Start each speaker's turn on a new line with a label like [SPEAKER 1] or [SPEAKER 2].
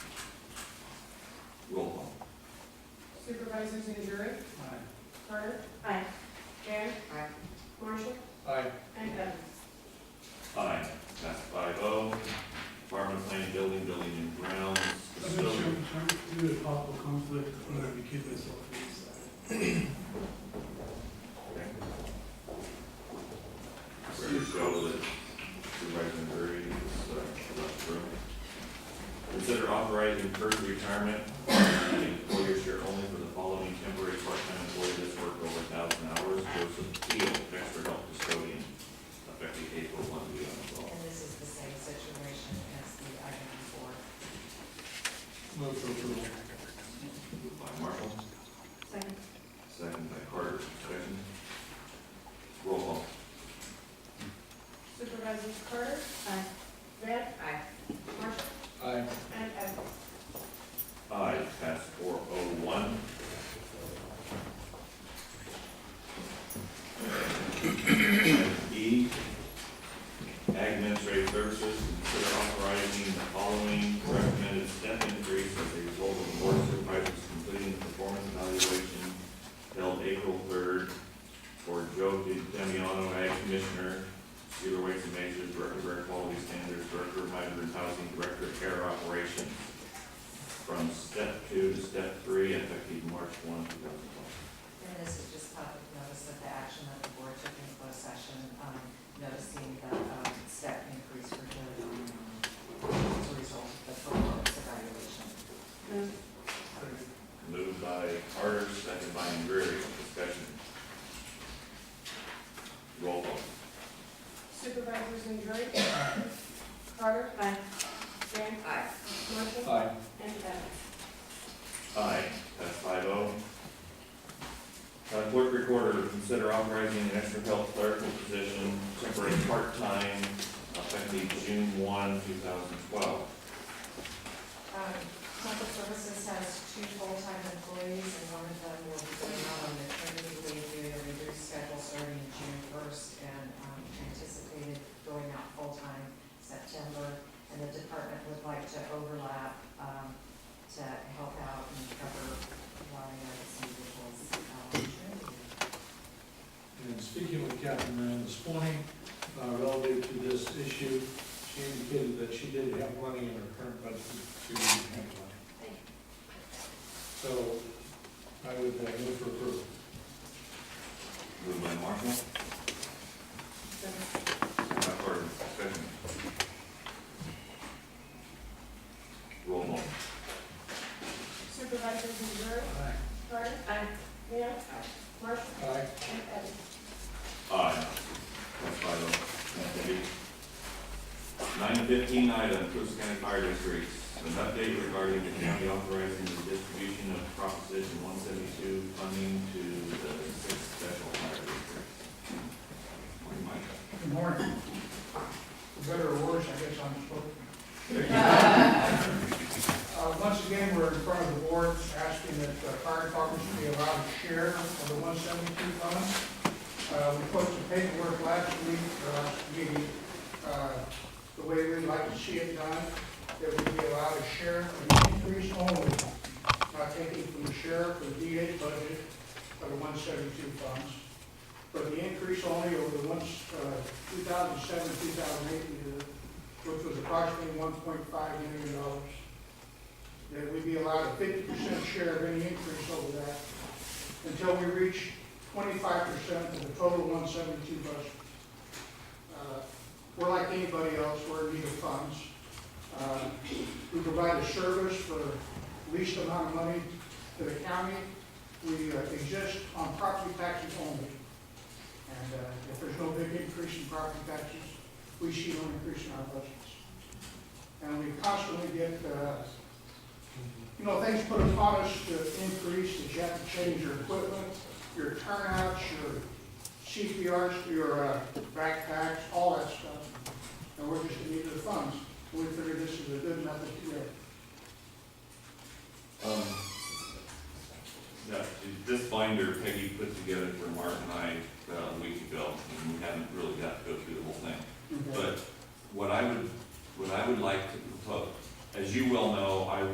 [SPEAKER 1] Supervisors Andrew,
[SPEAKER 2] Aye.
[SPEAKER 1] Carter,
[SPEAKER 3] Aye.
[SPEAKER 1] Gann,
[SPEAKER 3] Aye.
[SPEAKER 1] Marshall,
[SPEAKER 2] Aye.
[SPEAKER 1] and Evans.
[SPEAKER 4] Aye, that's five oh. Department of Plan, Building, Building and Grounds,
[SPEAKER 2] I'm not sure,
[SPEAKER 4] Facility.
[SPEAKER 2] I'm sure there's possible conflict, I'm gonna recuse myself from this.
[SPEAKER 4] Ready to go that Supervisor Murray is, uh, left the room. Consider authorizing first retirement, of employer share only for the following temporary part-time employee that's worked over thousand hours, Joseph Keel, expert help custodian, effective April one, we on the
[SPEAKER 3] And this is the same situation as the item before.
[SPEAKER 2] Move for approval.
[SPEAKER 4] By Marshall,
[SPEAKER 3] Second.
[SPEAKER 4] second by Carter, discussion. Roll call.
[SPEAKER 1] Supervisors Carter,
[SPEAKER 3] Aye.
[SPEAKER 1] Van,
[SPEAKER 3] Aye.
[SPEAKER 1] Marshall,
[SPEAKER 2] Aye.
[SPEAKER 1] and Evans.
[SPEAKER 4] Aye, pass four oh one. E, Ag Administrative Services, consider authorizing the following recommended step increase as a result of the board of supervisors completing the performance evaluation held April third for Joe Demiano, Ag Commissioner, Zero Waste and Measures, Director of Air Quality Standards, Director of Migrant Housing, Director of Care Operations, from step two to step three, effective March one, two thousand twelve.
[SPEAKER 3] And this is just public notice of the action that the board took in closed session, um, noticing the, um, step increase for Joe Donnelly as a result of the performance evaluation.
[SPEAKER 1] Move.
[SPEAKER 4] Moved by Carter, second by Andreery, discussion. Roll call.
[SPEAKER 1] Supervisors Andrew, Carter,
[SPEAKER 3] Aye.
[SPEAKER 1] Van,
[SPEAKER 3] Aye.
[SPEAKER 1] Marshall,
[SPEAKER 2] Aye.
[SPEAKER 1] and Evans.
[SPEAKER 4] Aye, that's five oh. Uh, clerk recorder, consider authorizing an extra health clerical position, temporary part-time, effective June one, two thousand twelve.
[SPEAKER 3] Um, Public Services has two full-time employees, and one of them will be going out on maternity leave due to reduced schedule starting June first, and um, anticipated going out full-time September. And the department would like to overlap um, to help out and cover while these individuals uh, maternity leave.
[SPEAKER 5] And speaking with Captain Moran this morning, uh, relative to this issue, she indicated that she did have money in her current budget to handle it. So I would uh, move for approval.
[SPEAKER 4] Moved by Marshall, second by Carter, discussion. Roll call.
[SPEAKER 1] Supervisors Andrew,
[SPEAKER 5] Aye.
[SPEAKER 1] Carter,
[SPEAKER 3] Aye.
[SPEAKER 1] Van, Marshall,
[SPEAKER 5] Aye.
[SPEAKER 1] and Evans.
[SPEAKER 4] Aye. That's five oh. Nine fifteen item, Coosa County Fire District, an update regarding the county authorizing the distribution of Proposition one seventy-two funding to the six special fire districts. Morning, Mike.
[SPEAKER 6] Good morning. For better or worse, I guess I'm spoken. Uh, Once again, we're in front of the board asking that the fire department should be allowed to share of the one seventy-two fund. Uh, We put some paperwork last week, or last meeting, uh, the way we'd like to see it done, that we be allowed to share an increase only, not taking from the sheriff or DA budget of the one seventy-two funds but the increase only over the ones, uh, 2007, 2008 year, uh, which was approximately 1.5 million dollars. That we be allowed a 50% share of any increase over that until we reach 25% of the total 172 budget. Uh, We're like anybody else, we're in need of funds. Uh, We provide a service for least amount of money to the county. We uh, exist on property taxes only. And uh, if there's no big increase in property taxes, we see no increase in our budgets. And we constantly get, uh, you know, things put upon us to increase, that you have to change your equipment, your turnouts, your CPRs, your uh, backpacks, all that stuff. And we're just in need of the funds. We figure this is a good method to do it.
[SPEAKER 4] Um, that- this binder Peggy put together for Mark and I about a week ago, and we haven't really got to go through the whole thing.
[SPEAKER 6] Okay.
[SPEAKER 4] But what I would, what I would like to propose, as you well know, I